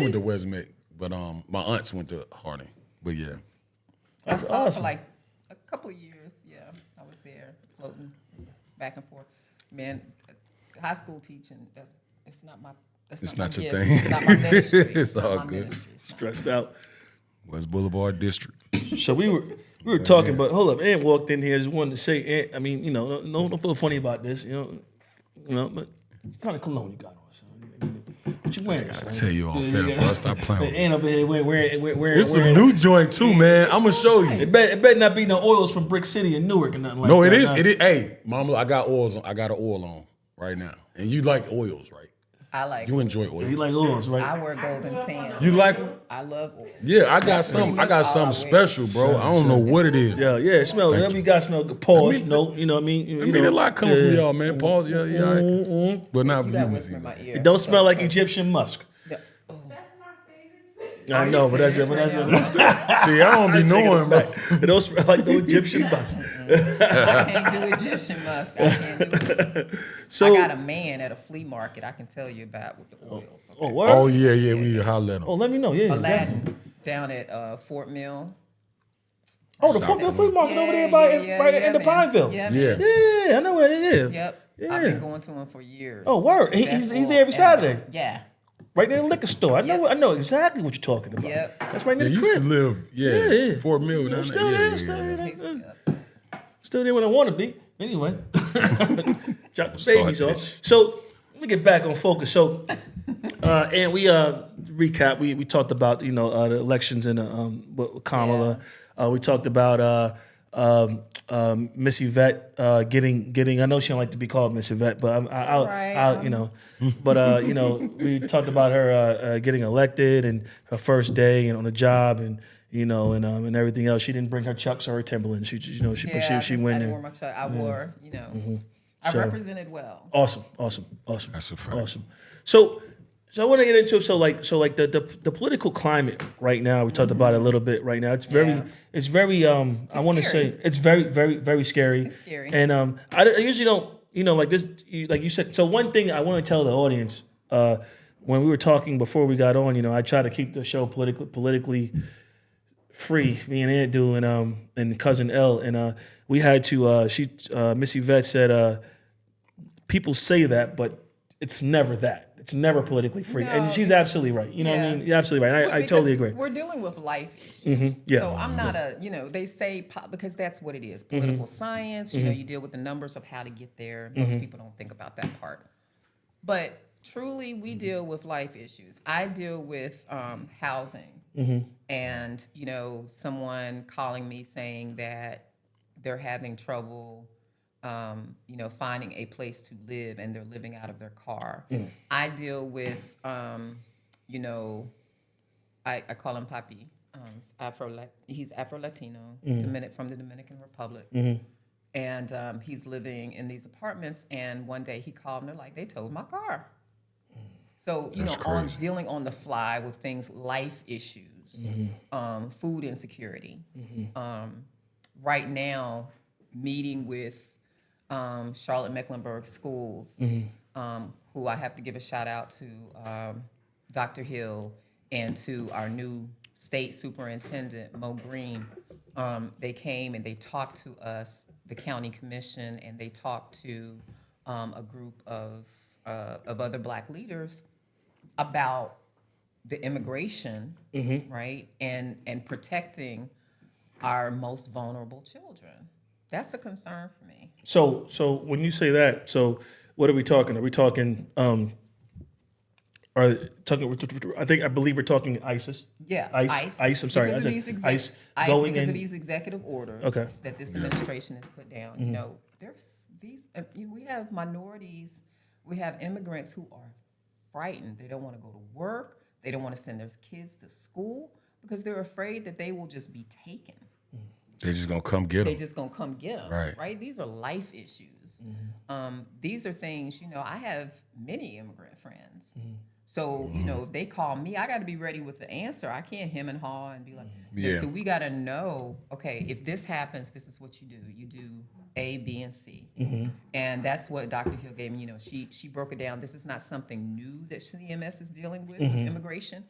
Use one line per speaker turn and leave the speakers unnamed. went to Westmead, but um, my aunts went to Harding. But yeah,
I
that's
taught for
awesome.
like a couple of years. Yeah, I was there floating back and forth. Man, high school teaching that's it's not my that's
It's
not,
not
my
your
gift.
thing.
It's not my ministry.
It's
not
all
my
good.
Ministry. It's not-
Stressed out.
West Boulevard District.
So we were we were talking, but hold up, Ann walked in here. Just wanted to say, Ann, I mean, you know, no, don't feel funny about this, you know, you know, but what kind of cologne you got on, son. What you wearing? son?
tell you all fair, bro. Stop playing with me.
Ann up in here wearing wearing wearing. wearing,
It's a new joint too, man. I'm gonna show you.
it, bet, it better not be no oils from Brick City and Newark and nothing like
No,
that.
it is.
nah.
It is. Hey, mama, I got oils. On, I got an oil on right now, and you like oils, right?
I like.
You enjoy
You
oils.
like oils, right?
I wear golden sand.
You like them?
I love oil.
Yeah, I got some. I got
much all I
something
wear.
special, bro. I don't know what it is.
Yeah, yeah. It smells. Whatever you got, smell good. Pause.
mean-
no, you know what I mean. You,
I
you
mean, a
know,
lot coming from
yeah.
y'all, man. Pause. Yeah, yeah. all right.
Mm-mm.
But not
You
you.
got
can
whisper
see
in my
that.
ear.
It don't smell like Egyptian musk.
The- oh,
That's my favorite thing.
I know, but that's it.
serious
But
right
that's it.
now?
See, I don't be
Take it
knowing, bro.
back. It don't smell like no Egyptian musk.
I can't do Egyptian musk. I can't do it. I
So,
got a man at a flea market. I can tell you about with the oils.
oh,
Okay.
what?
Oh
Oh,
yeah, yeah. We need to holler at them.
let me know. Yeah, definitely.
Aladdin down at uh, Fort Mill.
Oh, the fucking flea market over there by
Yeah, yeah,
right
yeah,
in the
man.
Pineville.
Yeah,
Yeah.
man.
Yeah.
I know where it is.
Yep. I've been
Yeah.
going to him for years.
Oh, word. He-
That's
he's- he's
all.
there every
And, uh,
Saturday.
Yeah.
Right near the liquor store. I know.
Yep.
I know exactly what you're talking about.
Yep.
That's right
Yeah,
near
you
the
used to
crib.
live, yeah,
Yeah, yeah.
Fort Mill. down there.
Still
yeah,
there.
yeah,
Still
yeah.
there.
Yep.
Still there when I want to be. Anyway, drop the
Start
babies off.
this.
So let me get back on focus. So, uh, and we uh recap. We we talked about you know uh, the elections and uh, um with with Kamala. Uh, we talked about uh. Um, um, Miss Yvette uh, getting getting. I know she don't like to be called Miss Yvette, but I'm, I, I'll,
alright.
I'll you know. But uh, you know, we talked about her uh, uh, getting elected and her first day and on the job and you know and um, and everything else. She didn't bring her Chucks or her Timberlands. She just, you know she
Yeah, I
she, she
just-
went
I
there.
wore my tr- I wore, you know, I
So-
represented well.
Awesome, awesome, awesome.
That's a fact.
Awesome. So, so I want to get into so like so like the the, the political climate right now. We talked about it a little bit right now. It's very
Mm-hmm. Yeah.
it's very um I
It's
want to
scary.
say it's very very very scary.
It's scary.
And um I, don't- I usually don't you know like this you, like you said. So one thing I want to tell the audience uh when we were talking before we got on, you know, I try to keep the show politically politically free. Me and Aunt do and um and cousin L and uh we had to uh she uh Missy Vet said uh people say that, but it's never that. It's never politically free.
No,
and she's
it's-
absolutely right. You know what I
yeah.
mean? You're absolutely right. I, I totally
Because
agree. Mm-hmm.
We're dealing with life issues.
yeah. Mm-hmm.
So I'm not a, you know, they say po- because that's what it is political science. You know, you deal with the numbers of how to get there. Most
Mm-hmm.
people don't think about that part. But truly,
Mm-hmm.
we deal with life issues. I deal with um, housing.
Mm-hmm.
And, you know, someone calling me saying that they're having trouble, um, you know, finding a place to live and they're living out of their car.
Mm.
I deal with, um, you know, I, I call him Papi. Um, Afro, he's Afro Latino, Dominic from the Dominican Republic, and um, he's living in these apartments. And one day he called and they're like, they towed my car. So you know, on dealing on the fly with things, life issues, um, food insecurity. Um, right now, meeting with um, Charlotte Mecklenburg Schools, um, who I have to give a shout out to um, Dr. Hill and to our new state superintendent, Mo Green. Um, they came and they talked to us, the county commission, and they talked to um, a group of, uh, of other black leaders about the immigration,
Mm-hmm.
right, and and protecting our most vulnerable children. That's a concern for me.
So so when you say that, so what are we talking? Are we talking um are talking I think I believe we're talking ISIS.
Yeah,
ICE, ICE, I'm sorry,
Because
I said
of these exec-
ICE,
ICE
going
because
in-
of these executive orders
Okay. Mm-hmm.
that this administration has put down. You know, there's these. uh, You know, we have minorities, we have immigrants who are frightened. They don't want to go to work. They don't want to send their kids to school because they're afraid that they will just be taken.
They just gonna come get
they
them.
just gonna come get them
Right.
right, these are life issues um, these are things you know i have many immigrant friends so you
Mm-hmm.
know if they call me i got to be ready with the answer i can't hem and haw and be like
Yeah.
so we got to know okay if this happens this is what you do you do A, B, and C. And that's what Dr. Hill gave me. You know, she she broke it down. This is not something new that CMS is dealing with, with immigration.